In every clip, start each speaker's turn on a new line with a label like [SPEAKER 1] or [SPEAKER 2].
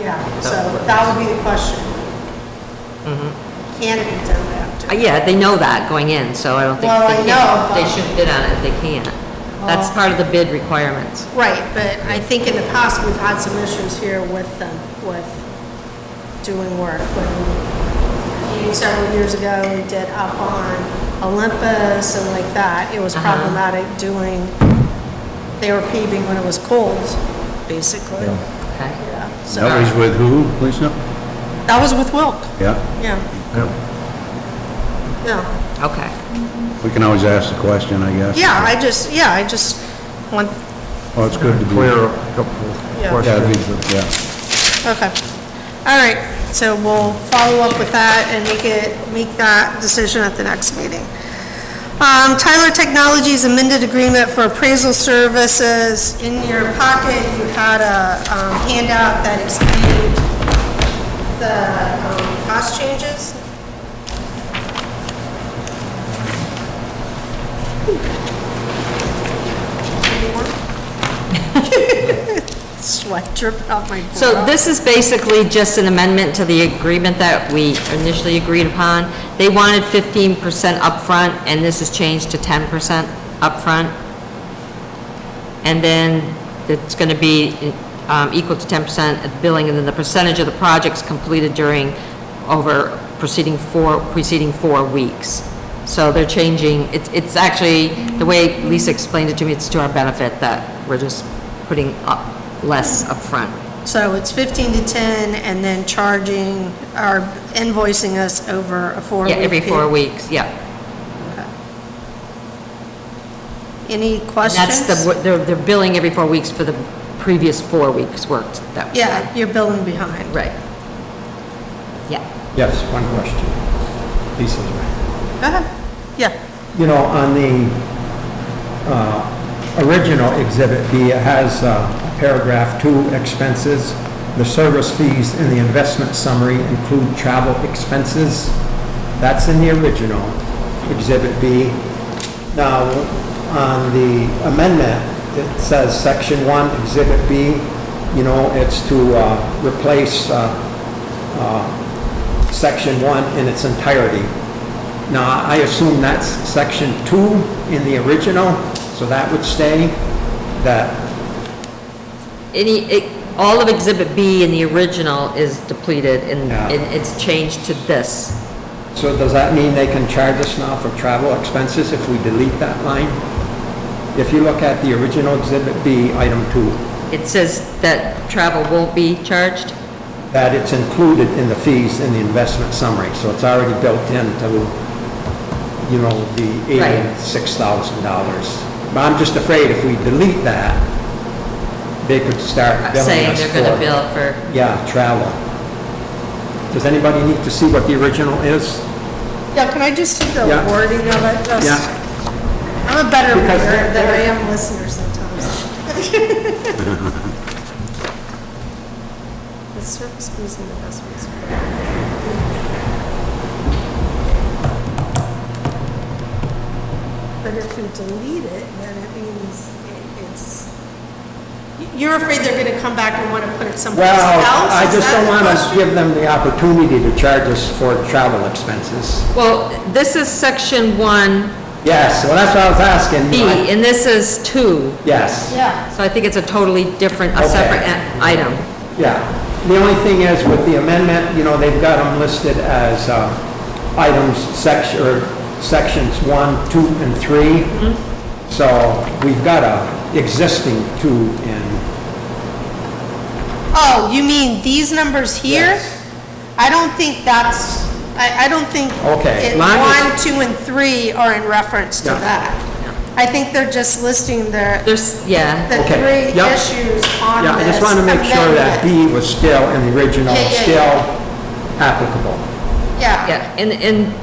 [SPEAKER 1] Yeah, so
[SPEAKER 2] So-
[SPEAKER 1] that would be the question. Can it be done after?
[SPEAKER 2] Mm-hmm. Uh, Yeah, they know that going in, so I don't think.
[SPEAKER 1] Well,
[SPEAKER 2] they
[SPEAKER 1] I
[SPEAKER 2] can't-
[SPEAKER 1] know,
[SPEAKER 2] They
[SPEAKER 1] but-
[SPEAKER 2] shouldn't bid on it if they can't. That's
[SPEAKER 1] Well-
[SPEAKER 2] part of the bid requirements.
[SPEAKER 1] Right, but I think in the past, we've had some issues here with them, with doing work. When, you know, several years ago, we did up on Olympus and like that, it was
[SPEAKER 2] Uh-huh.
[SPEAKER 1] problematic doing, they were paving when it was cold, basically.
[SPEAKER 2] Okay.
[SPEAKER 1] Yeah, so, uh,
[SPEAKER 3] That was with who, Lisa?
[SPEAKER 1] that was with Wilk,
[SPEAKER 3] Yeah.
[SPEAKER 1] yeah, yeah.
[SPEAKER 2] Okay.
[SPEAKER 3] We can always ask the question, I guess.
[SPEAKER 1] Yeah, I just, yeah, I just want,
[SPEAKER 3] Well, it's good to be.
[SPEAKER 4] Clear up a couple of
[SPEAKER 1] Yeah.
[SPEAKER 3] Yeah, it'd
[SPEAKER 4] questions.
[SPEAKER 3] be- Yeah.
[SPEAKER 1] Okay. All right, so we'll follow up with that and make it, make that decision at the next meeting. Um, Tyler Technologies amended agreement for appraisal services. In your pocket, you had a um, handout that explained the um, cost changes. Sweat dripping off my brow.
[SPEAKER 2] So this is basically just an amendment to the agreement that we initially agreed upon. They wanted fifteen percent upfront, and this is changed to ten percent upfront. And then it's gonna be, um, equal to ten percent at billing, and then the percentage of the projects completed during, over preceding four, preceding four weeks. So they're changing, it's, it's actually, the way Lisa explained it to me, it's to our benefit that we're just putting up less upfront.
[SPEAKER 1] So it's 15 to 10, and then charging, or invoicing us over a four-week
[SPEAKER 2] Yeah, every four
[SPEAKER 1] period.
[SPEAKER 2] weeks, yeah.
[SPEAKER 1] Any
[SPEAKER 2] And That's
[SPEAKER 1] questions?
[SPEAKER 2] the, they're, they're billing every four weeks for the previous four weeks worked. That was-
[SPEAKER 1] Yeah, you're billing behind.
[SPEAKER 2] Right. Yeah.
[SPEAKER 4] Yes, one question. Lisa's right.
[SPEAKER 1] Go ahead. Yeah,
[SPEAKER 4] You know, on the uh, original Exhibit B, it has uh, paragraph two, expenses. The service fees in the investment summary include travel expenses. That's in the original Exhibit B. Now, on the amendment, it says Section 1, Exhibit B, you know, it's to uh, replace uh, Section 1 in its entirety. Now, I assume that's Section 2 in the original, so that would stay, that,
[SPEAKER 2] Any, it- all of Exhibit B in the original is depleted and,
[SPEAKER 4] Yeah.
[SPEAKER 2] and it's changed to this.
[SPEAKER 4] so does that mean they can charge us now for travel expenses if we delete that line? If you look at the original Exhibit B, Item 2,
[SPEAKER 2] It says that travel won't be charged? uh,
[SPEAKER 4] that it's included in the fees in the investment summary, so it's already built into, you know, the
[SPEAKER 2] Right.
[SPEAKER 4] $86,000. But I'm just afraid if we delete that, they could start billing
[SPEAKER 2] Uh, Saying
[SPEAKER 4] us
[SPEAKER 2] they're gonna
[SPEAKER 4] for-
[SPEAKER 2] bill for,
[SPEAKER 4] Yeah, travel. Does anybody need to see what the original is?
[SPEAKER 1] yeah, can I just see the
[SPEAKER 4] Yeah.
[SPEAKER 1] wording of it? Just-
[SPEAKER 4] Yeah.
[SPEAKER 1] I'm a better
[SPEAKER 4] Because
[SPEAKER 1] reader than I
[SPEAKER 4] there-
[SPEAKER 1] am listener sometimes. The service fees and investments. But if we delete it, then it means it- it's, you're afraid they're gonna come back and wanna put it someplace else?
[SPEAKER 4] Well, I
[SPEAKER 1] Is
[SPEAKER 4] just
[SPEAKER 1] that
[SPEAKER 4] don't
[SPEAKER 1] the
[SPEAKER 4] want
[SPEAKER 1] question?
[SPEAKER 4] to give them the opportunity to charge us for travel expenses.
[SPEAKER 2] well, this is section one
[SPEAKER 4] Yes, well, that's what I was asking.
[SPEAKER 2] B and this is two.
[SPEAKER 4] Yes,
[SPEAKER 1] Yeah,
[SPEAKER 2] So I think it's a totally different, a
[SPEAKER 4] Okay.
[SPEAKER 2] separate a- item.
[SPEAKER 4] yeah. The only thing is with the amendment, you know, they've got them listed as uh, items section, or sections one, two, and three.
[SPEAKER 1] Mm-hmm.
[SPEAKER 4] So we've got a existing two in,
[SPEAKER 1] oh, you mean these numbers here?
[SPEAKER 4] Yes.
[SPEAKER 1] I don't think that's, I, I don't think.
[SPEAKER 4] Okay,
[SPEAKER 1] it-
[SPEAKER 4] mine is-
[SPEAKER 1] One, two, and three are in reference to
[SPEAKER 4] Yeah.
[SPEAKER 1] that. I think they're just listing their,
[SPEAKER 2] There's, yeah.
[SPEAKER 1] the
[SPEAKER 4] Okay,
[SPEAKER 1] three
[SPEAKER 4] yep.
[SPEAKER 1] issues on this.
[SPEAKER 4] yeah, I just want to make sure that
[SPEAKER 1] amendment.
[SPEAKER 4] B was still in the original,
[SPEAKER 1] Yeah, yeah,
[SPEAKER 4] still applicable.
[SPEAKER 1] Yeah,
[SPEAKER 2] Yeah, and, and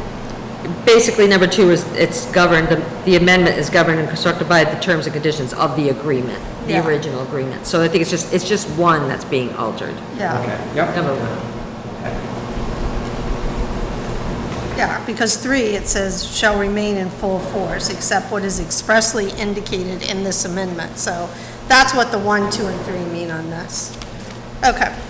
[SPEAKER 2] basically, number two is, it's governed, the amendment is governed and constructed by the terms and conditions of the agreement, the
[SPEAKER 1] Yeah.
[SPEAKER 2] original agreement. So I think it's just, it's just one that's being altered,
[SPEAKER 1] yeah,
[SPEAKER 4] Okay, yep.
[SPEAKER 2] number one.
[SPEAKER 1] yeah, because three, it says shall remain in full force except what is expressly indicated in this amendment. So that's what the one, two, and three mean on this. Okay.